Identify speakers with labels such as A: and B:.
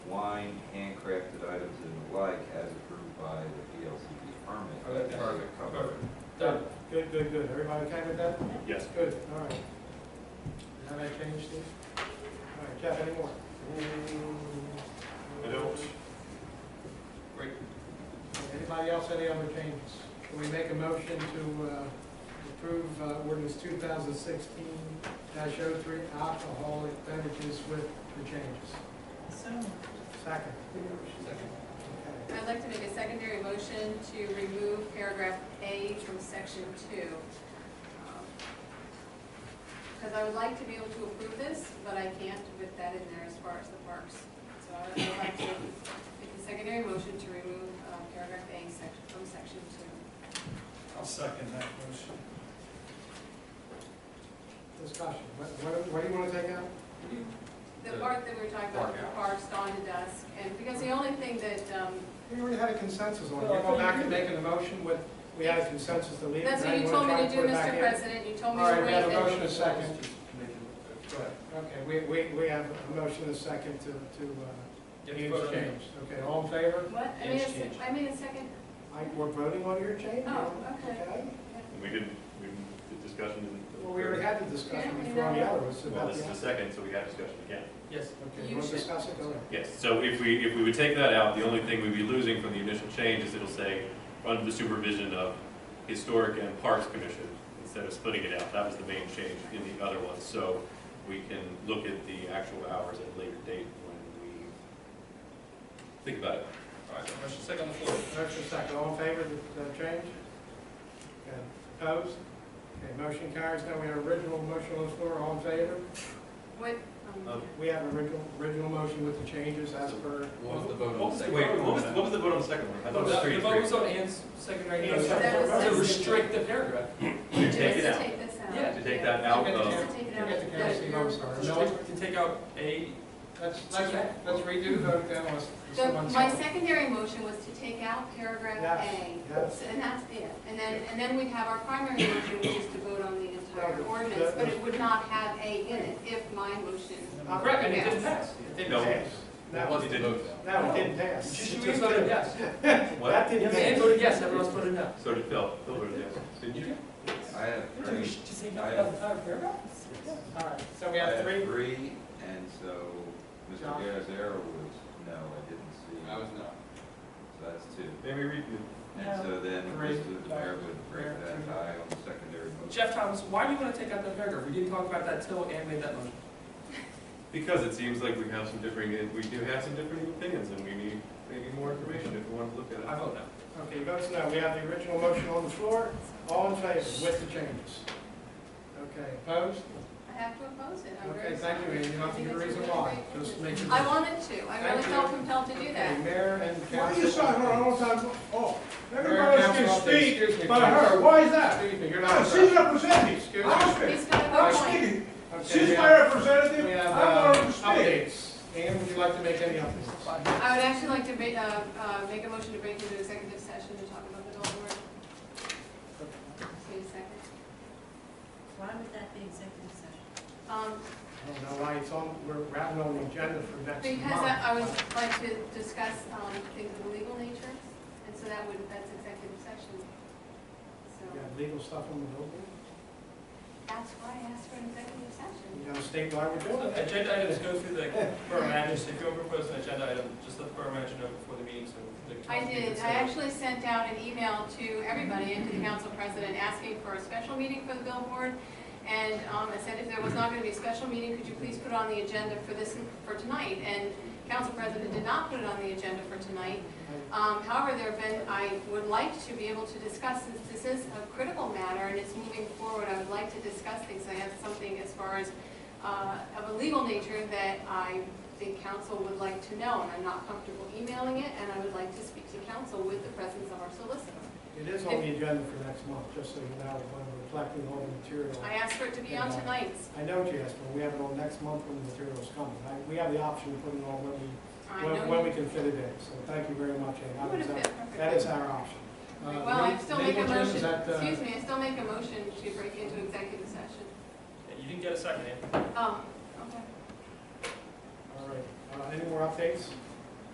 A: wine, handcrafted items and the like as approved by the VLCT permit.
B: Oh, that's
A: Perfect.
B: perfect.
C: Done.
B: Good, good, good. Everybody okay with that?
C: Yes.
B: Good, all right. Have I changed this? All right, Jeff, any more?
C: I don't. Great.
B: Anybody else, any other changes? Can we make a motion to uh, approve uh, ordinance two thousand sixteen 3 alcoholic beverages with the changes?
D: So,
B: Second. Okay.
D: I'd like to make a secondary motion to remove paragraph A from section two. Because I would like to be able to approve this, but I can't with that in there as far as the parks. So I would like to make a secondary motion to remove uh, paragraph A section, from section two.
E: I'll second that motion.
B: Discussion. What, what- what do you want to take out?
D: The part that we were talking about, the parks dawn to dusk, and because the only thing that, um,
B: We already had a consensus on it.
E: Well,
B: You
E: I
B: go
E: think
B: back
E: you-
B: and make an emotion with, we had a consensus to leave. it,
D: that's
B: and
D: what you
B: then
D: told me
B: wanna
D: to
B: try
D: do,
B: put it back
D: Mr.
B: in.
D: President. You told me to
B: All right, we
D: wait
B: have a
D: and-
B: motion, a second. uh,
E: Go ahead.
B: Okay, we, we, we have a motion, a second to, to, uh,
C: Get
B: change.
C: the vote on it.
B: Okay, all in favor?
D: What? I made a,
C: Yes,
D: se- I made a second,
B: I, we're voting on your change?
D: Oh, okay. yeah.
F: We didn't, we, the discussion isn't.
B: Well, we already had the discussion
D: Yeah, we
B: before on the
D: know.
B: other, it's
F: Well,
B: about
F: this
B: the.
F: is the second, so we have discussion again.
C: Yes.
B: Okay,
D: You
B: you want to
D: should-
B: discuss it, go ahead.
F: Yes, so if we, if we would take that out, the only thing we'd be losing from the initial change is it'll say, under the supervision of Historic and Parks Commission, instead of splitting it out. That was the main change in the other one, so we can look at the actual hours at a later date when we think about it.
C: All right, motion second on the floor.
B: Motion second, all in favor of the, the change? Okay, opposed? Okay, motion carries, now we have original motion on the floor, all in favor?
D: What? um,
C: Um,
B: We have original, original motion with the changes as per.
C: What was the vote
F: What
C: on the
F: was the,
C: second?
F: wait, what was, what was the vote on Oh, the second one? I thought it was
C: The
F: three, to
C: vote was
F: three.
C: on Ann's secondary
B: Ann's
C: motion.
D: secondary
C: To
D: motion.
C: restrict the paragraph.
F: Oh, To take it
D: just
F: out,
D: Take this out.
C: Yeah,
F: to take that out of,
D: Just to take it out.
B: Forget the county, I'm sorry. No,
C: Restrict, to take out A.
B: Let's, let's, let's redo the vote then, unless
D: The,
B: someone's.
D: my secondary motion was to take out paragraph
B: Yes,
D: A.
B: yes.
D: And that's it. And then, and then we'd have our primary motion, which is to vote on the
B: Yeah,
D: entire
B: but
D: ordinance,
B: that-
D: but it would not have A in it if my motion.
B: Uh,
C: Correct, and it didn't pass.
B: It didn't
F: No.
B: pass.
F: that
B: No,
F: was the vote.
B: no, it didn't pass.
C: Just you voted yes.
F: What?
B: That didn't
C: Ann
B: pass.
C: voted yes, everyone else voted no.
F: So did Phil, Phil voted yes. Didn't you?
A: I have
C: So you
A: three,
C: should just take out the entire paragraph?
B: All right, so
A: I
B: we have
A: have
B: three.
A: three, and so Mr.
B: John?
A: Garazera was, no, I didn't see. I was no. So that's two.
F: Maybe read you.
A: And so then
B: Three.
A: Mr. Mayor would break
B: Yeah,
A: that
B: two.
A: tie on the secondary motion.
C: Jeff Thomas, why do you want to take out that paragraph? We didn't talk about that till Ann made that motion.
F: Because it seems like we have some differing, we do have some different opinions, and we need maybe more information if we want to look
C: I
F: at it.
C: vote no.
B: Okay, votes no. We have the original motion on the floor. All in favor with the changes. Okay, opposed?
D: I have to oppose it. I'm very
B: Okay, thank you,
D: sorry.
B: Ann. You don't
D: I
B: have to
D: think
B: give a
D: it's
B: reason
D: really
B: why.
D: great
B: Just
D: business.
B: make
D: I
B: it.
D: wanted to. I really
B: Thank you.
D: felt compelled to do
B: Okay,
D: that.
B: Mayor and council.
G: Why do you sign her all the time? Oh,
B: Mayor
G: everybody
B: and
G: else can
B: council,
G: speak
B: excuse me,
G: but
B: please.
G: her. Why is that?
B: Excuse me, you're not.
G: No, she's representing.
B: Excuse me.
G: I'm
D: He's
G: speaking.
D: got a
G: I'm
D: good point.
G: speaking.
B: Okay, we
G: She's my
B: have-
G: representative.
B: We
G: I
B: have
G: want
B: uh,
G: her to speak.
B: updates. Ann, would you like to make any updates?
D: I would actually like to make, uh, uh, make a motion to break into executive session to talk about the Dalton work. Wait a second.
H: Why would that be executive session?
D: Um,
B: I don't know why it's on, we're rounding on the agenda for next month.
D: Because I I would like to discuss um, things of a legal nature, and so that would, that's executive session.
B: You
D: So
B: got legal stuff on the building?
D: that's why I asked for an executive session.
B: You got a state law we're doing? it.
C: Agenda items go through the borough manager, so if you want to propose an agenda item, just let the borough manager know before the meeting, so. the council
D: I
C: can
D: did,
C: consider
D: I
C: it.
D: actually sent out an email to everybody and to the council president asking for a special meeting for the billboard. And um, I said, if there was not going to be a special meeting, could you please put it on the agenda for this, for tonight? And council president did not put it on the agenda for tonight. Um, However, there have been, I would like to be able to discuss, since this is a critical matter and it's moving forward, I would like to discuss things. I have something as far as, uh, of a legal nature that I think council would like to know, and I'm not comfortable emailing it, and I would like to speak to council with the presence of our solicitor.
B: It is on the agenda for next month, just so you know, when we're collecting all the material.
D: I asked for it to be on tonight's.
B: I know what you asked, but we have it on next month when the material's coming. I- We have the option of putting it on when we,
D: I
B: when- when
D: know
B: we can fit it in, so thank you very much, Ann.
D: you would
B: That
D: have
B: is
D: fit
B: our- That is
D: perfectly.
B: our option. Uh,
D: Well, I
B: le-
D: still make a
B: legal terms,
D: motion,
B: is that, uh,
D: excuse me, I still make a motion to break into executive session. Um,
C: You eh? didn't get a second, Ann.
D: Oh, okay.
B: All right, Uh, any more updates?